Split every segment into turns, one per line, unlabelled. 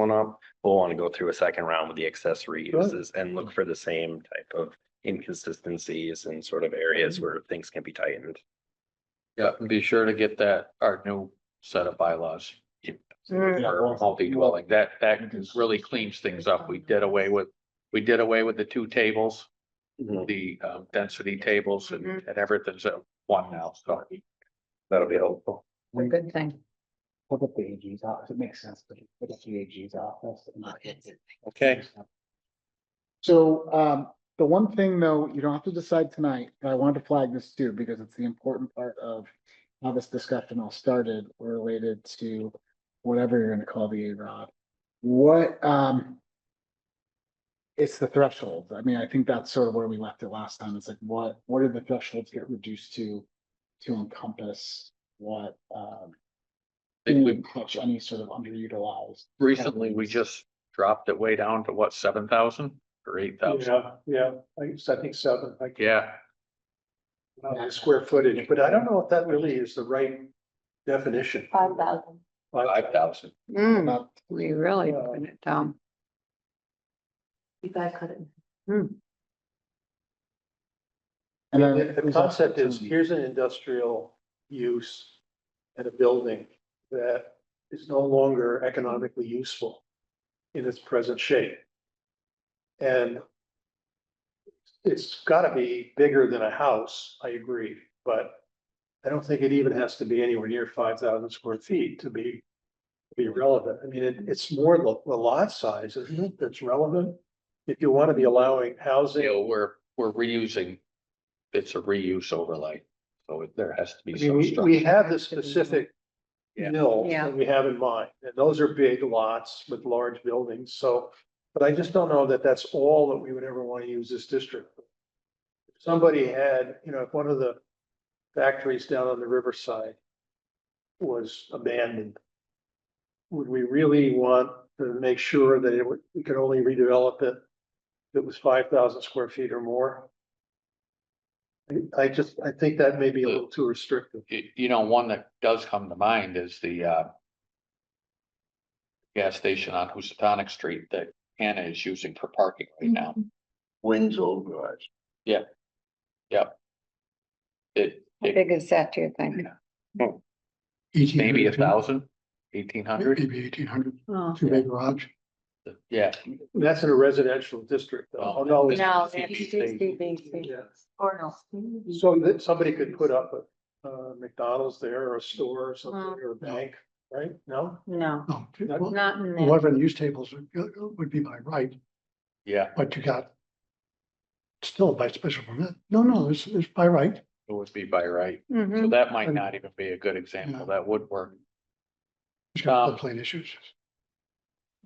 one up, we'll want to go through a second round with the accessory
Right.
uses and look for the same type of inconsistencies and sort of areas where things can be tightened.
Yeah, and be sure to get that, our new set of bylaws.
Mm.
for Multi-dwelling, that, that really cleans things up. We did away with, we did away with the two tables, the um, density tables and, and everything's at one now, so.
That'll be helpful.
It's a good thing.
Look at the AG's office, it makes sense, but look at the AG's office. and-
Okay.
So um, the one thing though, you don't have to decide tonight, but I wanted to flag this too, because it's the important part of how this discussion all started related to whatever you're gonna call the A-Rod. What um it's the threshold. I mean, I think that's sort of where we left it last time. It's like, what, what did the thresholds get reduced to to encompass what um
I think we,
touch any sort of underutilized
recently, we just dropped it way down to what, seven thousand or eight thousand?
Yeah, yeah, I think- I think seven, like,
Yeah,
uh, square footage, but I don't know if that really is the right definition.
Five thousand.
five thousand.
Mm,
about
we really
Hmm. Yeah.
put it down. You guys cut it.
Hmm.
Mm,
And then
The the
who's also
concept is,
doing-
here's an industrial use and a building that is no longer economically useful in its present shape. And it's gotta be bigger than a house, I agree, but I don't think it even has to be anywhere near five thousand square feet to be to be relevant. I mean, it, it's more the the lot size, isn't it, that's relevant? If you wanna be allowing housing.
You know, we're, we're reusing. It's a reuse overlay, so it- there has to be
I mean,
some
we, we
structure.
have the specific
Yeah.
mill
Yeah.
that we have in mind, and those are big lots with large buildings, so. But I just don't know that that's all that we would ever want to use this district. for. If Somebody had, you know, if one of the factories down on the riverside was abandoned. Would we really want to make sure that it would, we could only redevelop it if it was five thousand square feet or more? I- I just, I think that may be a little too restrictive.
You, you know, one that does come to mind is the, uh. Gas station on Housatonic Street that Hannah is using for parking right now.
Mm-hmm.
Wind's old garage.
It,
How
it
big is that, do you think?
maybe a thousand, eighteen hundred,
Maybe eighteen hundred,
Oh,
two big garage.
yeah.
That's in a residential district, though. Oh, no, it's-
No,
it's
it's
CBC.
CBC.
yeah.
Or
So that somebody could put up a uh, McDonald's there or a store or something,
Mm-hmm.
or a bank, right? No?
no,
No,
That-
Oh, well,
not in there.
whatever the use tables would- uh, would be by right,
Yeah,
but you got still by special permit. No, no, it's, it's by right.
it would be by right, so
Mhm.
that might not even be a good example, that would work.
It's got
Um,
floodplain
Oh.
issues.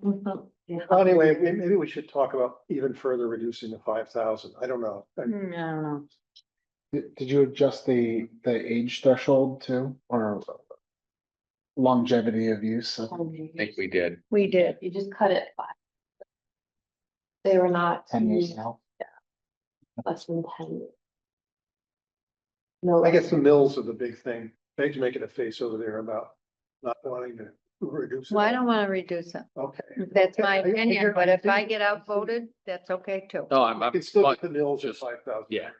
Mhm. Yeah.
Well, Anyway, may- maybe we should talk about even further reducing the five thousand. I don't know. I-
Mm, I don't know.
Did, did you adjust the, the age threshold too, or longevity of use? I think
Um,
I think we did,
We did. You just cut it by. They were not
Ten years now,
less than ten. No.
I guess the mills are the big thing. Meg's making a face over there about not wanting to reduce. it.
Well, I don't want to reduce it.
Okay.
That's my
I- I hear-
opinion, but if I
I
get outvoted, that's okay too.
no, I'm, I'm,
It's still
but-
the mills at
just-
five thousand.
yeah.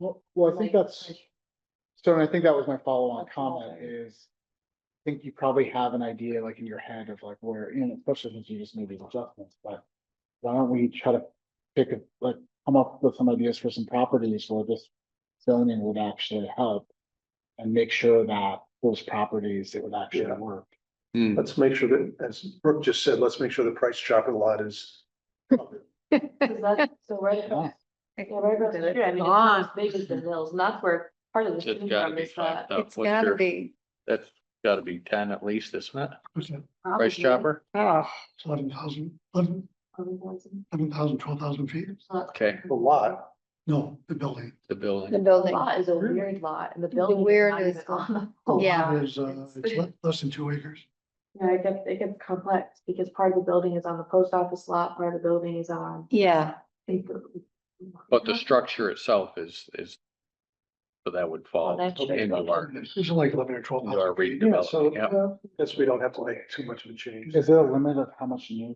well, well, I think that's, so and I think that was my follow-on
That's all
comment
I-
is. I think you probably have an idea like in your head of like where, you know, especially since you just made these adjustments, but. Why don't we try to pick, a like, come up with some ideas for some properties where this zoning would actually help? And make sure that those properties, it would actually
Yeah.
work.
Hmm,
Let's make sure that, as Brooke just said, let's make sure the price chopper lot is.
Is that- So right,
Yeah.
yeah, right across the street, I mean, it's not as big as the mills, and that's where part of the.
It's
student
gotta
farm
be
is that-
5,000.
It's
What's
gotta
your-
be.
That's gotta be ten at least, isn't it?
What's that?
Price chopper,
Oh,
Ah.
It's eleven thousand, eleven, eleven thousand, twelve thousand feet?
okay,
A lot.
No, the building.
the building.
the
The
building.
lot is a weird lot and the
The
building.
weird
not
is
even
the-
on the whole
Yeah.
lot.
It is, uh, it's
It's-
le- less than two acres.
Yeah, it gets, it gets complex because part of the building is on the post office lot, part of the building is on.
Yeah,
I think the-
But the structure itself is, is So that would fall
Well, that should-
into our,
These are like eleven or twelve.
into our
houses.
Yeah, so,
redevelopment, yeah.
uh, guess we don't have to make too much of a change.
Is there a limit of how much new